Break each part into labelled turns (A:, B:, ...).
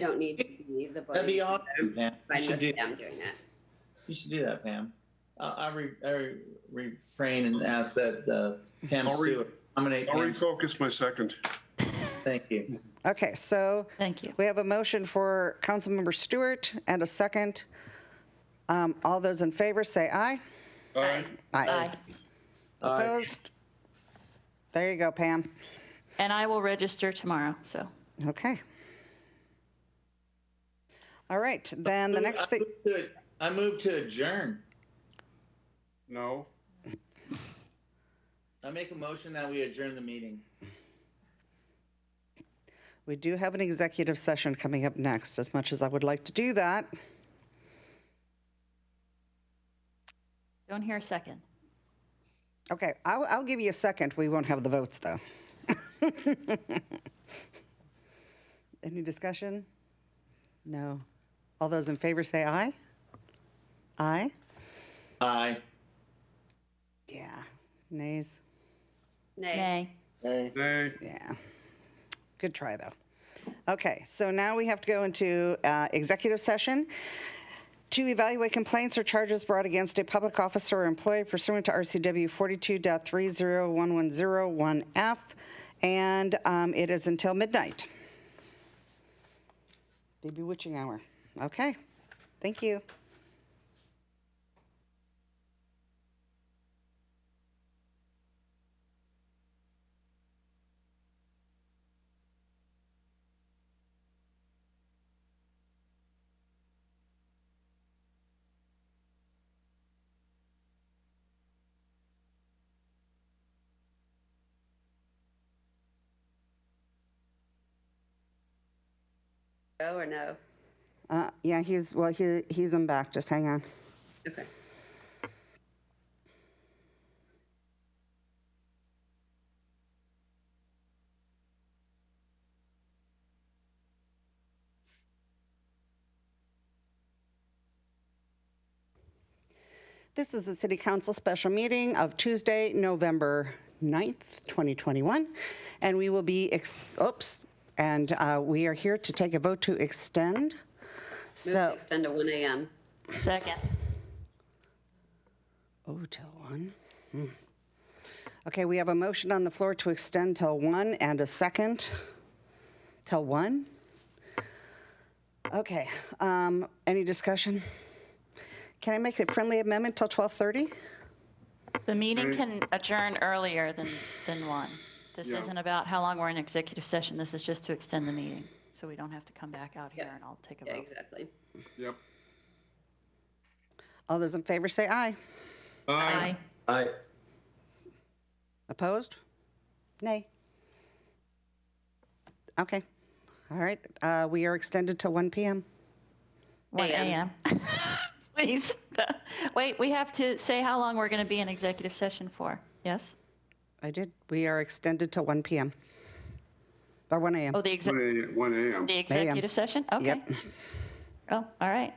A: don't need to be the board.
B: That'd be
A: member.
B: awesome, Pam.
A: I'm
B: You should do,
A: with them doing that.
B: you should do that, Pam. I'll, I'll re, I re- refrain and ask that, uh, Pam
C: I'll re-
B: Stewart, nominate
C: I'll
B: Pam.
C: refocus my second.
B: Thank you.
D: Okay, so
E: Thank you.
D: we have a motion for Councilmember Stewart and a second. Um, All those in favor, say aye.
C: Aye.
E: Aye.
B: All right.
D: Opposed? There you go, Pam.
E: And I will register tomorrow, so.
D: Okay. All right, then the next
B: I
D: thing,
B: move to- I move to adjourn.
C: No.
B: I make a motion that we adjourn the meeting.
D: we do have an executive session coming up next, as much as I would like to do that.
E: Don't hear a second.
D: Okay, I'll, I'll give you a second. We won't have the votes, though. Any discussion? No. All those in favor say aye? Aye?
B: Aye.
D: Yeah. Nays?
A: Nay,
E: Nay.
C: Nay.
D: Yeah. Good try, though. Okay, so now we have to go into uh, executive session to evaluate complaints or charges brought against a public officer or employee pursuant to RCW 42.301101F, and um, it is until midnight. The bewitching hour. Okay, thank you.
A: go or no?
D: Uh, Yeah, he's, well, he he's in back, just hang on.
A: Okay.
D: This is the City Council special meeting of Tuesday, November 9th, 2021. And we will be, ex- oops, and uh, we are here to take a vote to extend.
A: Move to
D: So,
A: extend to 1 AM.
E: Second.
D: oh, till 1. Hmm. Okay, we have a motion on the floor to extend till 1 and a second till 1. Okay, um, any discussion? Can I make a friendly amendment till 12:30?
E: The meeting can adjourn earlier than, than one. This
C: Yeah.
E: isn't about how long we're in executive session. This is just to extend the meeting. So we don't have to come back out here and I'll take a
A: Yeah,
E: vote.
A: exactly.
C: Yep.
D: All those in favor say aye.
E: Aye.
B: Aye.
D: Opposed? Nay. Okay. All right. Uh, we are extended till 1 p.m.
E: One
A: AM.
E: AM. Please. Wait, we have to say how long we're going to be in executive session for. Yes?
D: I did. We are extended till 1 p.m. Or 1 a.m.
E: Oh, the exec,
C: One a- One AM.
E: the executive session? Okay.
D: Yep.
E: Oh, all right.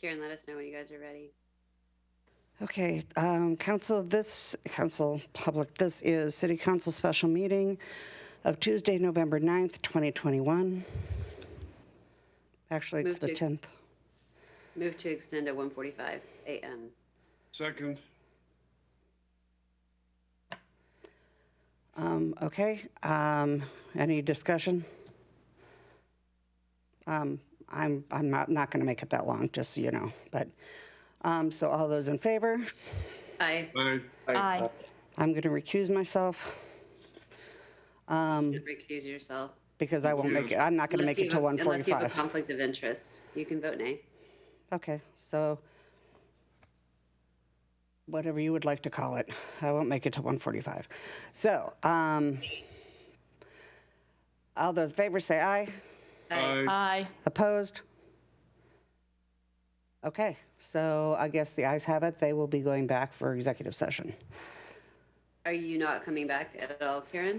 A: Karen, let us know when you guys are ready.
D: Okay, um, council, this, council, public, this is city council special meeting of Tuesday, November 9th, 2021. Actually, it's
A: Move
D: the
A: to-
D: 10th.
A: Move to extend to 1:45 AM.
C: Second.
D: Um, okay, um, any discussion? Um, I'm, I'm not, not gonna make it that long, just so you know, but, um, so all those in favor,
A: Aye,
C: Aye.
E: Aye.
D: I'm gonna recuse myself Um,
A: recuse yourself.
D: because I won't make it, I'm not gonna
A: Unless
D: make it
A: you
D: till
A: have- Unless you have a
D: 1:45.
A: conflict of interest, you can vote nay.
D: Okay, so whatever you would like to call it, I won't make it till 1:45. So, um, all those in favor say aye.
B: Uh,
A: Aye.
E: Aye.
D: Opposed? Okay, so I guess the ayes have it. They will be going back for executive session.
A: Are you not coming back at all, Karen?